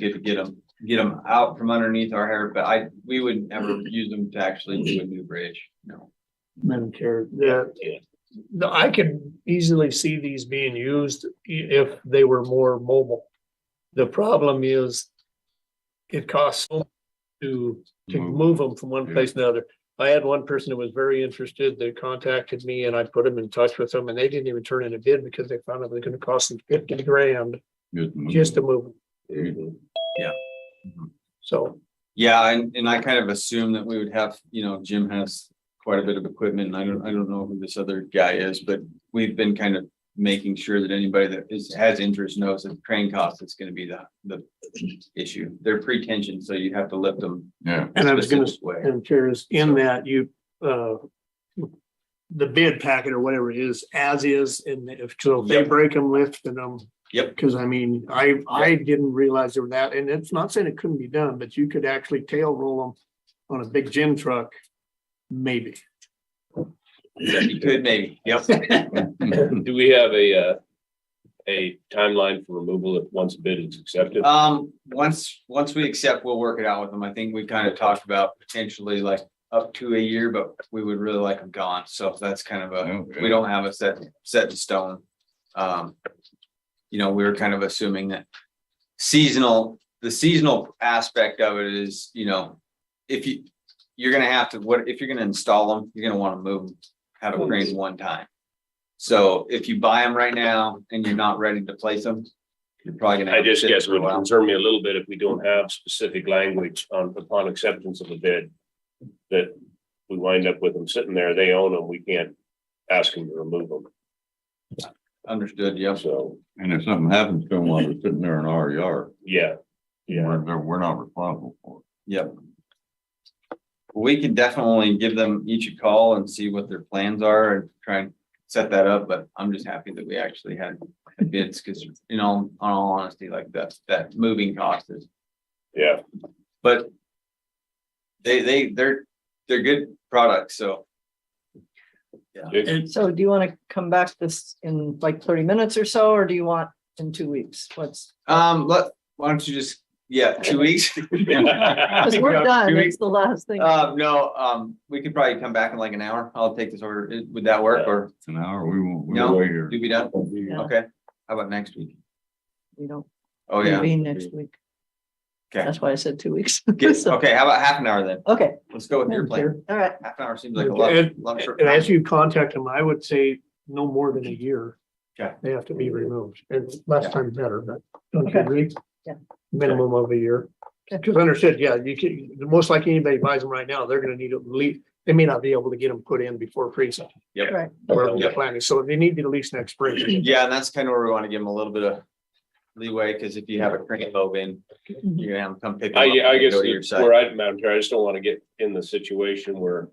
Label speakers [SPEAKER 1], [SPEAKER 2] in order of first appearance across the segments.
[SPEAKER 1] Get, get them, get them out from underneath our hair, but I, we would never use them to actually do a new bridge, no.
[SPEAKER 2] Madam Chair, the, the- I could easily see these being used i- if they were more mobile. The problem is it costs so much to, to
[SPEAKER 3] Mm-hmm.
[SPEAKER 2] move them from one place to another. I had one person that was very interested, they contacted me and I put them in touch with them and they didn't even turn in a bid because they found out it was gonna cost them fifty grand just to move. 'em.
[SPEAKER 1] Yeah.
[SPEAKER 2] So,
[SPEAKER 1] Yeah, and, and I kind of assume that we would have, you know, Jim has quite a bit of equipment and I don't, I don't know who this other guy is, but we've been kind of making sure that anybody that is, has interest knows that crane cost is gonna be the, the issue. They're pre-tensioned, so you have to lift them.
[SPEAKER 3] Yeah,
[SPEAKER 2] and I was gonna,
[SPEAKER 1] specific way.
[SPEAKER 2] And Chair's in that you, uh, the bid packet or whatever it is, as is, and if, so if they
[SPEAKER 1] Yep.
[SPEAKER 2] break them, lifting them.
[SPEAKER 1] Yep.
[SPEAKER 2] um, Cause I mean, I, I didn't realize there were that, and it's not saying it couldn't be done, but you could actually tail roll them on a big gym truck, maybe.
[SPEAKER 1] Yeah, You could maybe, yep.
[SPEAKER 4] Do we have a, uh, a timeline for removal if once a bid is accepted?
[SPEAKER 1] Um, once, once we accept, we'll work it out with them. I think we kind of talked about potentially like up to a year, but we would really like them gone. So that's kind of a, we don't have a set, set in stone. Um, you know, we were kind of assuming that seasonal, the seasonal aspect of it is, you know, if you, you're gonna have to, what, if you're gonna install them, you're gonna wanna move them, have a crane one time. So if you buy them right now and you're not ready to place them, you're probably gonna.
[SPEAKER 4] I
[SPEAKER 1] have to
[SPEAKER 4] just
[SPEAKER 1] sit
[SPEAKER 4] guess it
[SPEAKER 1] for a
[SPEAKER 4] would
[SPEAKER 1] while.
[SPEAKER 4] concern me a little bit if we don't have specific language on upon acceptance of the bid. That we wind up with them sitting there, they own them, we can't ask them to remove them,
[SPEAKER 1] Understood, yes.
[SPEAKER 4] so,
[SPEAKER 3] and if something happens to them while they're sitting there in our yard,
[SPEAKER 4] yeah. Yeah,
[SPEAKER 3] we're, they're- we're not responsible for
[SPEAKER 1] Yep. We can definitely give them each a call and see what their plans are and try and set that up, but I'm just happy that we actually had bids, because you know, on all honesty, like that, that moving cost is,
[SPEAKER 4] yeah,
[SPEAKER 1] but they, they, they're, they're good products, so
[SPEAKER 4] It-
[SPEAKER 5] So do you want to come back to this in like thirty minutes or so, or do you want in two weeks? What's,
[SPEAKER 1] um, let, why don't you just, yeah, two weeks?
[SPEAKER 5] because we're done,
[SPEAKER 1] Two
[SPEAKER 5] it's
[SPEAKER 1] weeks.
[SPEAKER 5] the last thing.
[SPEAKER 1] Uh, no, um, we could probably come back in like an hour. I'll take this order. Is- Would that work or
[SPEAKER 3] it. An hour, we won't,
[SPEAKER 1] No.
[SPEAKER 3] we'll wait here.
[SPEAKER 1] do we done?
[SPEAKER 5] Yeah.
[SPEAKER 1] Okay, how about next week?
[SPEAKER 5] We don't
[SPEAKER 1] Oh, yeah.
[SPEAKER 5] convene next week.
[SPEAKER 1] Okay.
[SPEAKER 5] That's why I said two weeks.
[SPEAKER 1] Get-
[SPEAKER 5] So,
[SPEAKER 1] okay, how about half an hour then?
[SPEAKER 5] Okay.
[SPEAKER 1] Let's go with your plan.
[SPEAKER 5] All right,
[SPEAKER 1] Half an hour seems like a lot.
[SPEAKER 2] And-
[SPEAKER 1] lot short
[SPEAKER 2] And as
[SPEAKER 1] time.
[SPEAKER 2] you contact them, I would say no more than a year.
[SPEAKER 1] Okay.
[SPEAKER 2] They have to be removed, and less time better, but don't you
[SPEAKER 5] Okay.
[SPEAKER 2] agree?
[SPEAKER 5] Yeah.
[SPEAKER 2] Minimum of a year. Cause understood, yeah, you can, most likely anybody buys them right now, they're gonna need to leave, they may not be able to get them put in before freezing.
[SPEAKER 1] Yep.
[SPEAKER 5] Right.
[SPEAKER 2] Wherever they're
[SPEAKER 1] Yep.
[SPEAKER 2] planning, so they need to lease next spring.
[SPEAKER 1] Yeah, and that's kind of where we want to give them a little bit of leeway, because if you have a crane lobe in,
[SPEAKER 5] Mhm.
[SPEAKER 1] you're gonna have them come pick. them
[SPEAKER 4] I,
[SPEAKER 1] up
[SPEAKER 4] I
[SPEAKER 1] and
[SPEAKER 4] guess
[SPEAKER 1] Go to your
[SPEAKER 4] that's
[SPEAKER 1] side.
[SPEAKER 4] where I, Madam Chair, I just don't want to get in the situation where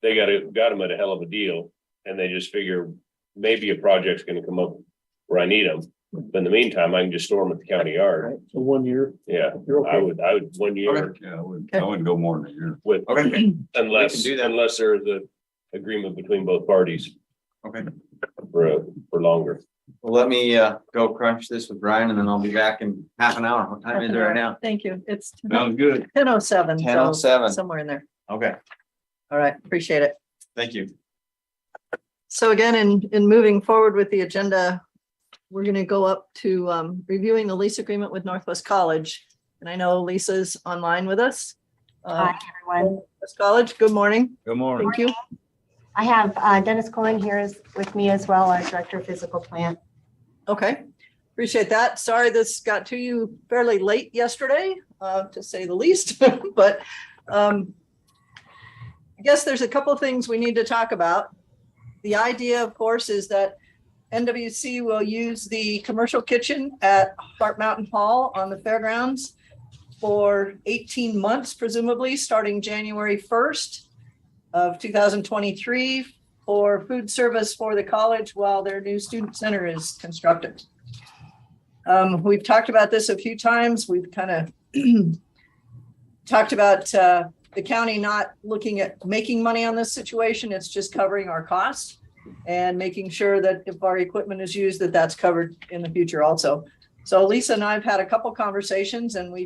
[SPEAKER 4] they got it, got them at a hell of a deal. And they just figure maybe a project's gonna come up where I need them. But in the meantime, I can just store them at the county yard.
[SPEAKER 2] Right, so one year,
[SPEAKER 4] Yeah,
[SPEAKER 2] you're
[SPEAKER 4] I
[SPEAKER 2] okay.
[SPEAKER 4] would, I would, one year
[SPEAKER 1] Okay.
[SPEAKER 3] Yeah, I wouldn't, I wouldn't go more than a year.
[SPEAKER 4] with,
[SPEAKER 1] Okay,
[SPEAKER 4] unless,
[SPEAKER 1] do that.
[SPEAKER 4] unless there's a agreement between both parties
[SPEAKER 1] okay.
[SPEAKER 4] for, a- for longer.
[SPEAKER 1] Well, let me, uh, go crunch this with Brian and then I'll be back in half an hour. What time is it right now?
[SPEAKER 5] Thank you. It's
[SPEAKER 3] Sounds good.
[SPEAKER 5] ten oh seven.
[SPEAKER 1] Ten oh seven.
[SPEAKER 5] Somewhere in there.
[SPEAKER 1] Okay,
[SPEAKER 5] All right, appreciate it.
[SPEAKER 1] thank you.
[SPEAKER 5] So again, in, in moving forward with the agenda, we're going to go up to um, reviewing the lease agreement with Northwest College. And I know Lisa's online with us. Uh,
[SPEAKER 6] Hi, everyone.
[SPEAKER 5] Northwest College, good morning.
[SPEAKER 3] Good morning.
[SPEAKER 5] Thank you.
[SPEAKER 6] I have uh, Dennis Cohen here is with me as well, our Director of Physical Plant.
[SPEAKER 5] Okay, appreciate that. Sorry this got to you fairly late yesterday, uh, to say the least, but um, I guess there's a couple things we need to talk about. The idea, of course, is that NWC will use the commercial kitchen at Hart Mountain Hall on the fairgrounds for 18 months, presumably, starting January 1st of 2023 for food service for the college while their new student center is constructed. Um, we've talked about this a few times. We've kind of talked about uh, the county not looking at making money on this situation. It's just covering our costs and making sure that if our equipment is used, that that's covered in the future also. So Lisa and I've had a couple conversations and we